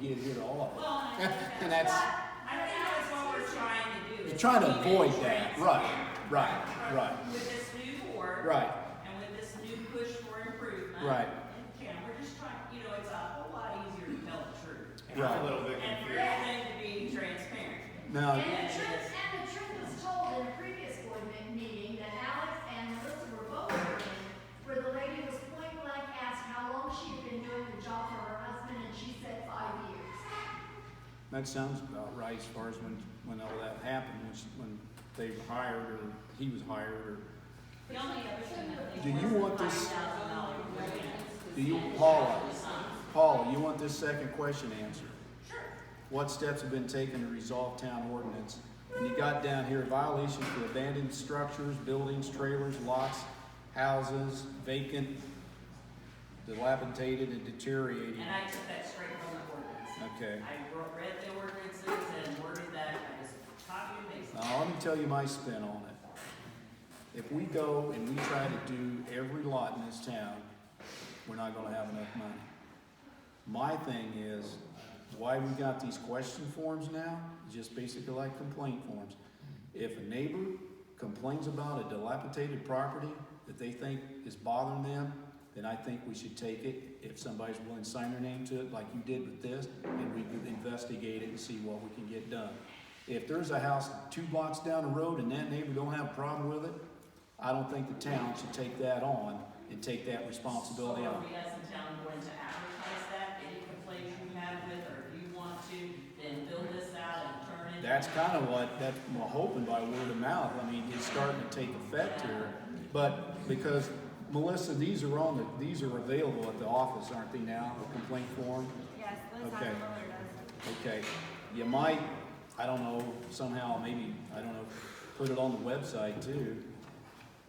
didn't get all of Well, and I think it. And that's- that's, I think that's what we're trying to do. you're is trying to keep it avoid that, right, transparent. right, right, With this new board. right, And with this new push for improvement. Right. And Ken, we're just trying, you know, it's a whole lot easier to tell the truth. I'm a right. little bit And for confused. everything to be transparent. No, And the truth, and the truth was told in a previous board me- meeting that Alex and Melissa were both working, where the lady was point blank asked how long she had been doing the job for her husband, and she said five years. that sounds about right as far as when, when all that happened, was when they were hired or he was hired or. The only other thing I think. Do you was the want this- $5,000 grant. Do you, Paula, Paula, you want this second question answered? What steps have been taken to resolve town ordinance? And you got down here violations for abandoned structures, buildings, trailers, lots, houses, vacant, dilapidated and deteriorating. And I took that straight from the ordinance. Okay. I wrote- read the ordinances and worded that, I just copied and pasted. Now, let me tell you my spin on it. If we go and we try to do every lot in this town, we're not gonna have enough money. My thing is, why we got these question forms now, just basically like complaint forms. If a neighbor complains about a dilapidated property that they think is bothering them, then I think we should take it, if somebody's willing to sign their name to it, like you did with this, and we could investigate it and see what we can get done. If there's a house two blocks down the road and that neighbor don't have a problem with it, I don't think the town should take that on and take that responsibility So on. are we as a town going to advertise that, any complaints you have with, or if you want to, then fill this out and turn it? That's kind of what, that, I'm hoping by word of mouth, I mean, it's starting to take effect here. But because, Melissa, these are on the, these are available at the office, aren't they now, the complaint form? Yes, Liz Okay. Howard does. Okay, you might, I don't know, somehow, maybe, I don't know, put it on the website too.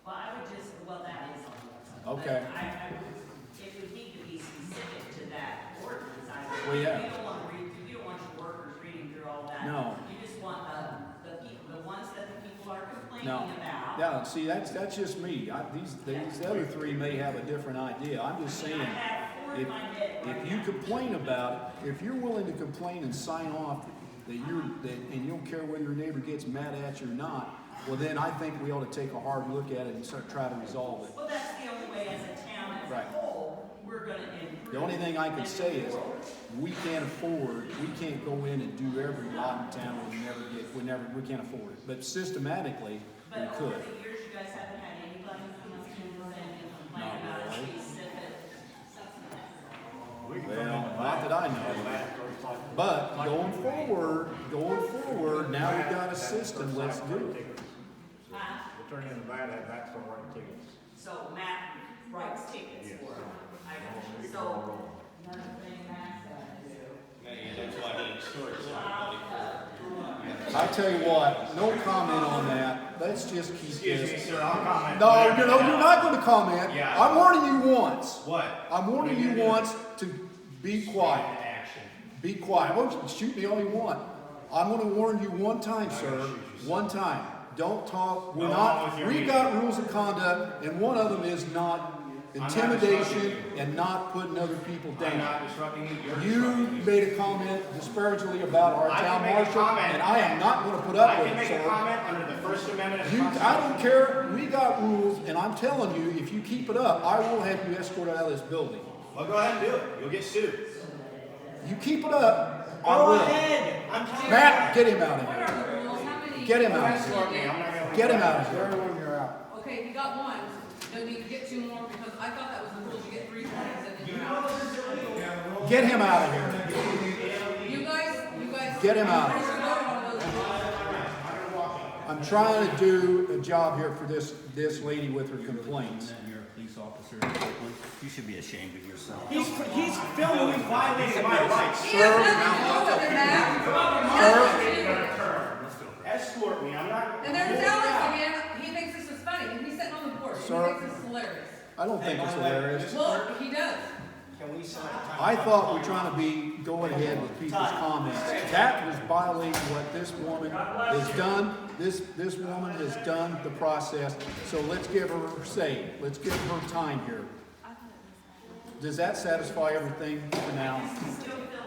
Well, I would just, well, that is on the website. but Okay. I, I would, if we need to be specific to that ordinance, I would. Well, yeah. You don't want to read, you don't want your workers reading through all that. No. You just want, um, the people, the ones that the people are complaining No. about. Now, see, that's, that's just me, I, these, these other three may have a different idea, I'm just I mean, I saying. have four in If, my head right if you now. complain about it, if you're willing to complain and sign off that you're, that, and you don't care whether your neighbor gets mad at you or not, well then I think we ought to take a hard look at it and start, try to resolve it. Well, that's the only way as a town as a Right. whole, we're gonna improve. The only thing I can and say is, move forward. we can't afford, we can't go in and do every lot in town, we never get, we never, we can't afford it. But systematically, we But over could. the years, you guys haven't had anybody who has been saying Not complain about a really. specific. We can Well, come in and not that I know of. back or something. But going forward, going forward, now we've got a That's the system, first let's time do we're it. taking tickets. Huh? We'll turn in the van, that back's gonna write tickets. So Matt writes tickets Yes. for them. I Well, got we you. can So roll. another thing Matt's got to do. I tell you what, no comment on that, let's just keep Excuse me, this. sir, I'll comment. No, you know, you're not gonna comment. Yeah. I'm warning you once. What? I'm warning you once to be quiet. Action. Be quiet. Well, you can shoot me all you want. I'm gonna warn you one time, sir. One time. Don't talk. We're No, I'm not, with you. we've got rules of conduct, and one of them is not not intimidation disrupting and not putting other people I'm down. not disrupting you, you're You disrupting me. made a comment disparagingly about our I can town make a marshal, comment. and I am not gonna put I up with it, can make a sir. comment under the First Amendment. of You, the I don't Constitution. care. We got rules, and I'm telling you, if you keep it up, I will have you escorted out of this building. Well, go ahead and do it, you'll get sued. You keep it up, I Go will. ahead, I'm tired. Matt, get him out of here. Get him out of here. Escort me, I'm not gonna. Get him out of here. Okay, we got one, don't need to get two more, because I thought that was the rules, you get three points and then you're out. Get him out of here. You guys, you guys. Get him out. You voted on those rules. I'm trying to do a job here for this, this lady with her complaints. You're a police officer in Kirkland. You should be ashamed of yourself. He's, he's filming, he's violating my rights. He has nothing to do with it, Matt. Nothing to do with it. Escort me, I'm not. And there's Alex again, he thinks this is funny, and he's sitting on the board, he Sir. thinks this is hilarious. I don't think it's hilarious. Well, he does. Can we sign a I thought we're trying to be going ahead with people's comments. That was violating what this woman has done. This, this woman has done the process, so let's give her her say. Let's give her time here. Does that satisfy everything for now? Still